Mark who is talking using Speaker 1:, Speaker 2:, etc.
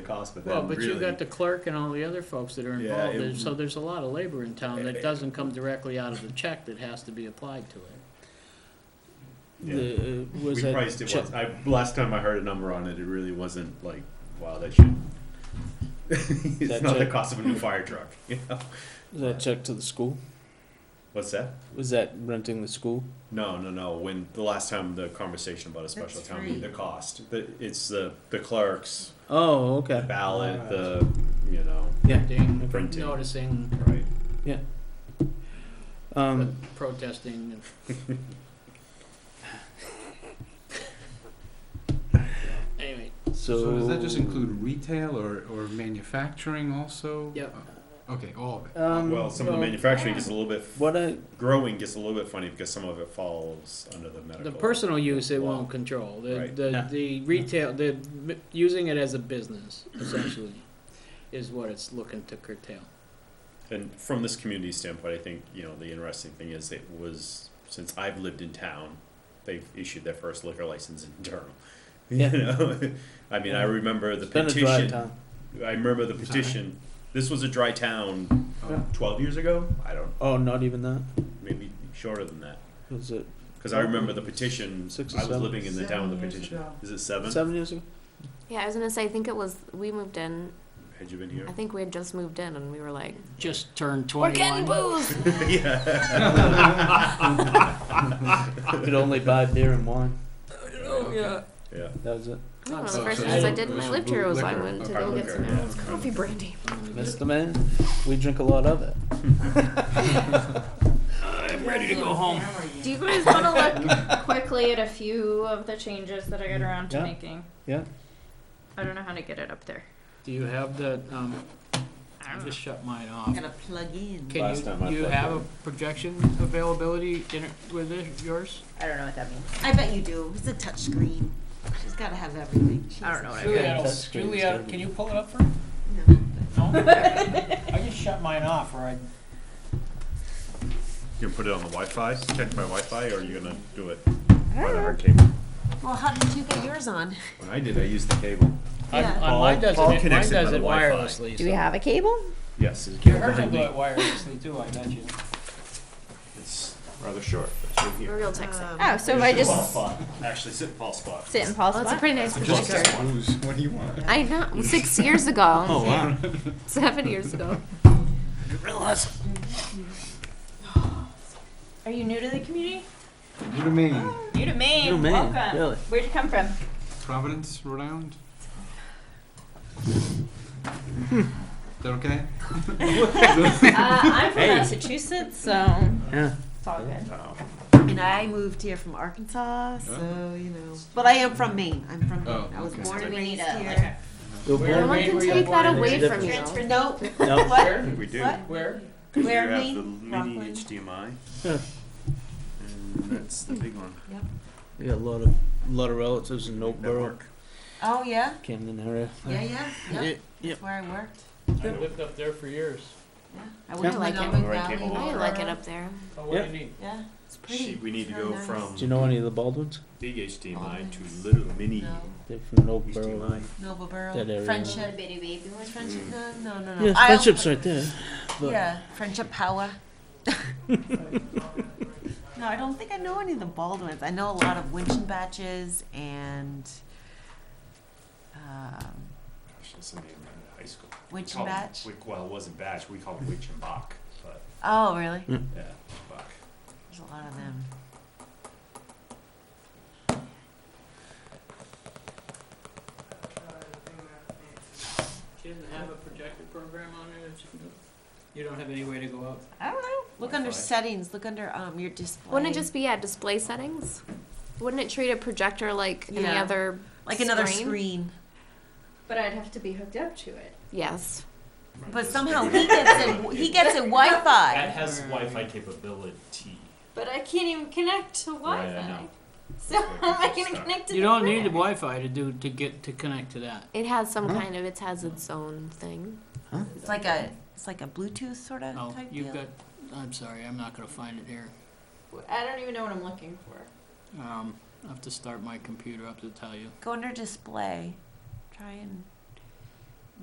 Speaker 1: cost, but
Speaker 2: Well,
Speaker 1: then
Speaker 2: but
Speaker 1: really.
Speaker 2: you got the clerk and all the other folks that are
Speaker 1: Yeah,
Speaker 2: involved,
Speaker 1: it-
Speaker 2: There's- so there's a lot of labor in town
Speaker 1: Eh, eh.
Speaker 2: that doesn't come directly out of the check that has to be applied to it.
Speaker 1: Yeah.
Speaker 2: The, uh, was
Speaker 1: we
Speaker 2: that
Speaker 1: priced it
Speaker 2: check-
Speaker 1: once. I last time I heard a number on it, it really wasn't like, wow, that should. it's
Speaker 3: That
Speaker 1: not the
Speaker 3: check-
Speaker 1: cost of a new fire truck. You know?
Speaker 3: Was that check to the school?
Speaker 1: What's that?
Speaker 3: Was that renting the school?
Speaker 1: No, no, no. When the last time the conversation about a special
Speaker 4: That's
Speaker 1: town meeting, the
Speaker 4: free.
Speaker 1: cost, the, it's the the clerks,
Speaker 3: Oh,
Speaker 1: the
Speaker 3: okay.
Speaker 1: ballot, the you know,
Speaker 3: Yeah.
Speaker 2: Ding,
Speaker 1: Printing.
Speaker 2: Noticing,
Speaker 1: right?
Speaker 3: Um,
Speaker 2: protesting, and anyway,
Speaker 5: So does
Speaker 3: so.
Speaker 5: that just include retail or, or manufacturing also?
Speaker 2: Yep.
Speaker 5: Uh, Okay, all of it.
Speaker 3: Um,
Speaker 1: well, some of the
Speaker 3: well,
Speaker 2: uh,
Speaker 1: manufacturing gets a little bit
Speaker 3: What I
Speaker 1: growing gets a little bit funny because some of it falls under the medical.
Speaker 2: the personal use it won't
Speaker 1: Well,
Speaker 2: control, the,
Speaker 1: right.
Speaker 2: the,
Speaker 3: Yeah.
Speaker 2: the retail, the, m- using it as a business essentially is what it's looking to curtail.
Speaker 1: And from this community standpoint, I think, you know, the interesting thing is it was, since I've lived in town, they've issued their first liquor license in Durham. You
Speaker 3: Yeah.
Speaker 1: know, I mean, I remember the
Speaker 3: it's been a dry
Speaker 1: petition,
Speaker 3: time.
Speaker 1: I remember the
Speaker 5: Sorry.
Speaker 1: petition, this was a dry town uh,
Speaker 3: Yeah.
Speaker 1: twelve years ago, I don't,
Speaker 3: Oh, not even that.
Speaker 1: maybe shorter than that.
Speaker 3: Was it
Speaker 1: Cause I remember the petition,
Speaker 3: Six or
Speaker 1: I was
Speaker 3: seven.
Speaker 1: living in the town with the
Speaker 4: Seven years
Speaker 1: petition,
Speaker 4: ago.
Speaker 1: is it seven?
Speaker 3: seven years ago?
Speaker 6: Yeah, I was gonna say, I think it was, we moved in,
Speaker 1: Had you been here?
Speaker 6: I think we had just moved in and we were like,
Speaker 2: Just turned
Speaker 6: we're
Speaker 2: twenty-one.
Speaker 6: getting booze!
Speaker 1: Yeah.
Speaker 3: You could only buy beer and wine.
Speaker 4: Oh,
Speaker 6: Yeah.
Speaker 1: Yeah.
Speaker 3: That was it.
Speaker 6: I think one of
Speaker 2: Oh, So-
Speaker 6: the first
Speaker 2: so
Speaker 6: things I
Speaker 2: you-
Speaker 6: did when I
Speaker 5: so
Speaker 6: lived here was I
Speaker 5: liquor.
Speaker 6: went to
Speaker 1: Okay,
Speaker 6: go get
Speaker 1: liquor,
Speaker 6: some
Speaker 1: yeah.
Speaker 6: Al's coffee brandy.
Speaker 3: Miss the man. We drink a lot of it.
Speaker 4: I'm ready to go home.
Speaker 7: Do you guys want to look quickly at a few of the changes that I got around to
Speaker 3: Yeah.
Speaker 7: making?
Speaker 3: Yeah.
Speaker 7: I don't know how to get it up there.
Speaker 2: Do you have the, um,
Speaker 7: I
Speaker 2: I
Speaker 7: don't know.
Speaker 2: just shut mine off.
Speaker 4: Gotta plug in.
Speaker 2: Can
Speaker 1: Last time I
Speaker 2: you, you
Speaker 1: plugged
Speaker 2: have
Speaker 1: it
Speaker 2: a
Speaker 1: in.
Speaker 2: projection availability in it with it, yours?
Speaker 7: I don't know what that means.
Speaker 4: I bet you do. It's a touchscreen. She's gotta have everything.
Speaker 7: I don't know what I
Speaker 3: Julia, Yeah, that's great. Julia, can
Speaker 2: you pull it up for me?
Speaker 4: know.
Speaker 2: No? I just shut mine off, or I.
Speaker 1: You gonna put it on the Wi-Fi, check my Wi-Fi, or you gonna do it by the hard cable?
Speaker 4: Well, how did you get yours on?
Speaker 1: When I did, I used the cable.
Speaker 4: Yeah.
Speaker 2: I- Mine does it,
Speaker 1: Paul
Speaker 2: mine
Speaker 1: connects
Speaker 2: does
Speaker 1: it by the
Speaker 2: it
Speaker 1: Wi-Fi.
Speaker 2: wirelessly,
Speaker 6: Do we
Speaker 2: so.
Speaker 6: have a cable?
Speaker 1: Yes, it's
Speaker 2: Hers will do it wirelessly too, I bet you.
Speaker 1: It's rather short. It's right here.
Speaker 6: Real tech set.
Speaker 7: Oh, so if
Speaker 1: Here's
Speaker 7: I
Speaker 1: the ball
Speaker 7: just
Speaker 1: spot. Actually, sit in Paul's spot.
Speaker 7: sit in Paul's
Speaker 6: Well, Oh, it's a
Speaker 7: spot?
Speaker 6: pretty nice projector.
Speaker 5: Booze, what do you want?
Speaker 6: I know, six years ago.
Speaker 3: Oh wow.
Speaker 6: Seven years ago.
Speaker 7: Are you new to the community?
Speaker 5: You to me.
Speaker 7: New to Maine.
Speaker 3: New to Maine,
Speaker 7: Welcome.
Speaker 3: really.
Speaker 7: Where'd you come from?
Speaker 5: Providence, Rhode Island? Is that okay?
Speaker 7: uh, I'm from Massachusetts, so
Speaker 3: Yeah.
Speaker 7: it's all good.
Speaker 4: And I moved here from Arkansas, so you know. But I am from Maine. I'm from Maine.
Speaker 5: Oh,
Speaker 4: I was
Speaker 5: okay.
Speaker 4: born and
Speaker 7: We need
Speaker 4: raised
Speaker 7: a-
Speaker 4: here.
Speaker 7: like
Speaker 3: Go
Speaker 6: No
Speaker 3: born.
Speaker 6: one can
Speaker 2: Where you
Speaker 6: take
Speaker 2: born
Speaker 6: that
Speaker 2: and
Speaker 6: away
Speaker 3: raised.
Speaker 6: from you.
Speaker 4: Transfer- Nope.
Speaker 3: No.
Speaker 4: What?
Speaker 1: We do.
Speaker 4: What?
Speaker 2: Where?
Speaker 1: Because
Speaker 4: Where
Speaker 1: you have
Speaker 4: me?
Speaker 1: the mini
Speaker 4: Rockland.
Speaker 1: HDMI.
Speaker 3: Yeah.
Speaker 1: And that's the big one.
Speaker 3: We got a lot of lot of relatives in Oakboro,
Speaker 1: Network.
Speaker 4: Oh yeah.
Speaker 3: Camden area.
Speaker 4: Yeah, yeah. Yep.
Speaker 3: Yeah, yeah.
Speaker 4: That's where I worked.
Speaker 2: I lived up there for years.
Speaker 4: Yeah. I worked
Speaker 6: like
Speaker 4: in
Speaker 6: it.
Speaker 4: Mountain
Speaker 1: Where I came
Speaker 4: Valley.
Speaker 1: along.
Speaker 6: I like it up there.
Speaker 2: Oh, what
Speaker 3: Yeah.
Speaker 2: do you need?
Speaker 4: Yeah. It's pretty.
Speaker 1: She, we need to
Speaker 4: Very
Speaker 1: go
Speaker 4: nice.
Speaker 1: from
Speaker 3: Do you know any of the Baldwins?
Speaker 1: big HDMI to
Speaker 4: Almonds.
Speaker 1: little mini.
Speaker 4: No.
Speaker 3: They're from Oakboro.
Speaker 1: HDMI.
Speaker 4: Noble
Speaker 3: That area.
Speaker 4: Borough. Friendship.
Speaker 7: baby baby
Speaker 4: Where's Friendship? No, no, no, no.
Speaker 3: Yeah,
Speaker 4: I'll-
Speaker 3: friendships right there. but-
Speaker 4: Yeah, friendship power. no, I don't think I know any of the Baldwins. I know a lot of Winchon batches and um,
Speaker 1: Gosh, That's the name in high school. We
Speaker 4: Winch
Speaker 2: Oh,
Speaker 1: call
Speaker 4: and
Speaker 1: them-
Speaker 4: Batch.
Speaker 1: we- Well, it wasn't Batch. We called it Witch and Bach. But
Speaker 4: Oh, really?
Speaker 1: yeah, Bach.
Speaker 4: There's a lot of them.
Speaker 2: She doesn't have a projector program on it, you don't have any way to go out?
Speaker 4: I don't know. Look
Speaker 1: Wi-Fi.
Speaker 4: under settings. Look under um your display.
Speaker 6: Wouldn't it just be, yeah, display settings? Wouldn't it treat a projector like any
Speaker 4: Yeah.
Speaker 6: other?
Speaker 4: like another
Speaker 6: screen?
Speaker 4: screen?
Speaker 7: But I'd have to be hooked up to it.
Speaker 6: Yes.
Speaker 4: But somehow he gets it. He gets it Wi-Fi.
Speaker 1: has Wi-Fi capability.
Speaker 7: But I can't even connect to
Speaker 1: Right, I know.
Speaker 7: So how am I going to
Speaker 1: Stuck.
Speaker 7: connect to
Speaker 2: You
Speaker 7: the
Speaker 2: don't
Speaker 7: grid?
Speaker 2: need the Wi-Fi to do, to get, to connect to that.
Speaker 6: It has some
Speaker 3: Huh?
Speaker 6: kind of, it has its own thing.
Speaker 4: It's like a it's like a Bluetooth sort of
Speaker 2: Oh,
Speaker 4: type
Speaker 2: you've
Speaker 4: deal.
Speaker 2: got, I'm sorry, I'm not gonna find it here.
Speaker 7: I don't even know what I'm looking for.
Speaker 2: Um, I have to start my computer up to tell you.
Speaker 4: Go under display. Try and